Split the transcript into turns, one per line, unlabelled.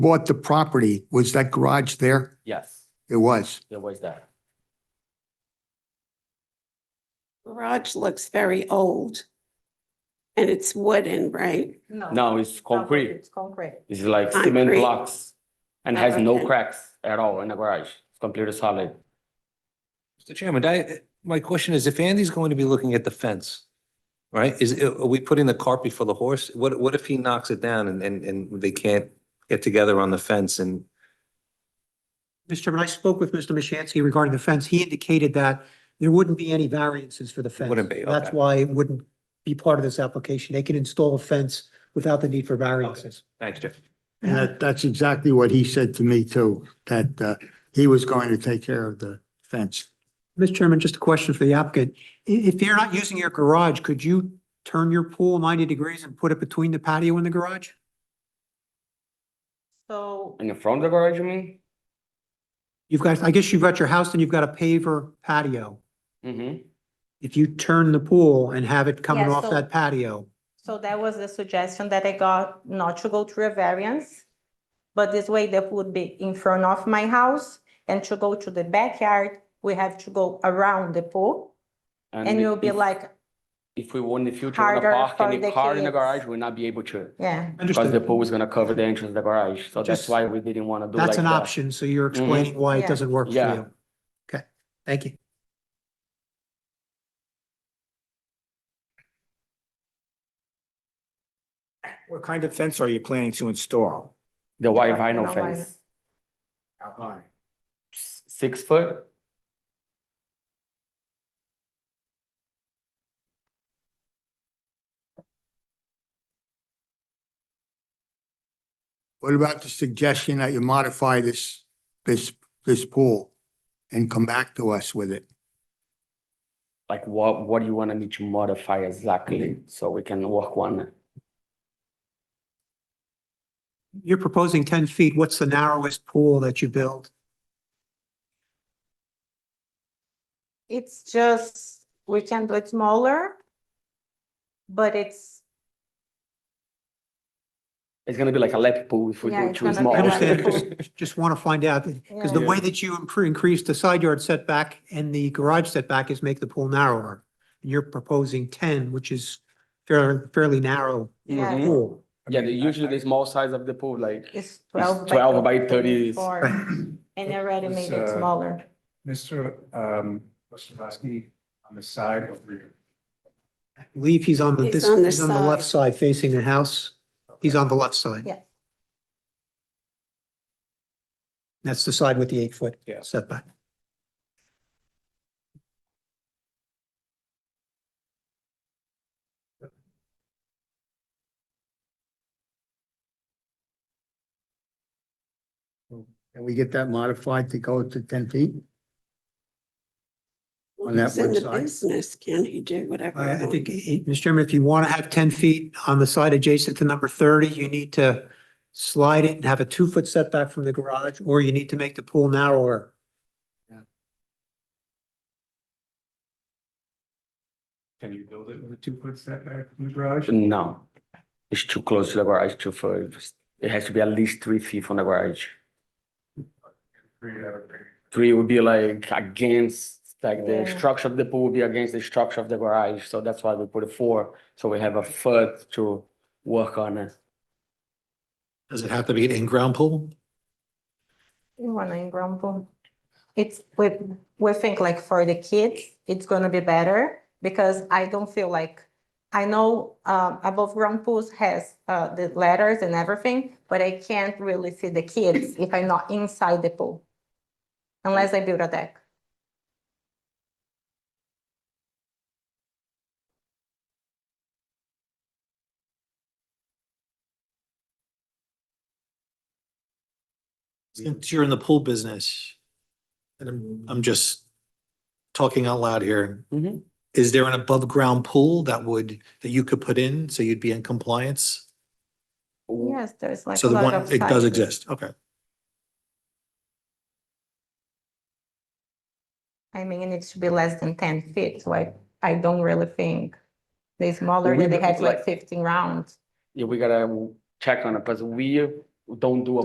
bought the property, was that garage there?
Yes,
It was.
it was that.
Garage looks very old. And it's wooden, right?
Now it's concrete.
It's concrete.
It's like cement
Concrete.
blocks and has no
Okay.
cracks at all in the garage. It's completely solid.
Mr. Chairman, I, my question is, if Andy's going to be looking at the fence, right, is, are we putting the cart before the horse? What, what if he knocks it down and, and, and they can't get together on the fence and,
Mr. Chairman, I spoke with Mr. Mishansky regarding the fence. He indicated that there wouldn't be any variances for the fence.
Wouldn't be,
That's
okay.
why it wouldn't be part of this application. They can install a fence without the need for variances.
thanks, Jeff.
And that, that's exactly what he said to me too, that, uh, he was going to take care of the fence.
Mr. Chairman, just a question for the applicant. I- if you're not using your garage, could you turn your pool ninety degrees and put it between the patio and the garage?
So
In the front of the garage, you mean?
You've got, I guess you've got your house and you've got a paver patio.
Mm-hmm.
If you turn the pool and have it coming
Yeah,
off
so-
that patio,
So that was the suggestion that I got, not to go through a variance. But this way that would be in front of my house and to go to the backyard, we have to go around the pool. And you'll be
if-
like,
If we want in the future, wanna
harder
park
for
any
the
car in the
kids.
garage, we'll not be able to.
yeah,
Because the
understood,
pool is gonna cover the entrance of the garage, so that's
Just-
why we didn't wanna do like
that's an
that. Mm-hmm.
option. So you're explaining why
Yeah.
it doesn't work for
Yeah.
you. Okay, thank you.
What kind of fence are you planning to install?
The white
Yeah,
vinyl
no
fence,
How high?
s- six foot,
What about the suggestion that you modify this, this, this pool and come back to us with it?
like what, what do you wanna me to modify exactly, so we can work on it?
You're proposing ten feet. What's the narrowest pool that you build?
it's just, we can do it smaller. But it's,
It's gonna be like a lap pool if we
Yeah,
do
it's
too
gonna be
small.
I
like a
understand,
pool.
just, just want to find out, because the
Oh. Yeah.
way that you improve, increase the side yard setback and the garage setback is make the pool narrower. And You're proposing ten, which is fairly, fairly narrow
Yeah.
Mm.
pool.
Yeah, the- usually the small size of the pool, like,
it's twelve.
it's twelve by thirty,
four, And I already
It's,
made it
uh,
smaller.
Mr. Um, Ostrowski, on the side of rear.
I believe he's on the,
He's
this,
on the
he's on the left side facing the house. He's on the left side.
Yeah.
That's the side with the eight foot
Yeah.
setback.
Can we get that modified to go to ten feet? On that
He's in the
one side.
business, can he do whatever?
I
he
I think,
wants?
eh, Mr. Chairman, if you want to have ten feet on the side adjacent to number thirty, you need to slide it and have a two-foot setback from the garage, or you need to make the pool narrower.
Can you build it with a two foot setback from the garage?
no. It's too close to the garage, too far, it has to be at least three feet from the garage.
Rear yard, rear.
Three would be like against, like the
Yeah.
structure of the pool would be against the structure of the garage, so that's why we put a four, so we have a foot to work on it.
Does it have to be an in-ground pool?
You wanna in Grumble? It's, we, we think like for the kids, it's gonna be better because I don't feel like, I know, um, above ground pools has, uh, the letters and everything, but I can't really see the kids if I'm not inside the pool. Unless I build a deck.
Since you're in the pool business, and I'm, I'm just talking out loud here,
Mm-hmm.
Mhm.
is there an above-ground pool that would, that you could put in, so you'd be in compliance?
Yes, there's like.
So
a
the
lot
one,
of
it does
sizes.
exist, okay.
I mean, it needs to be less than ten feet, so I, I don't really think the smaller
we
that they
look
have like
like-
fifteen rounds.
Yeah, we gotta check on it, because we don't do a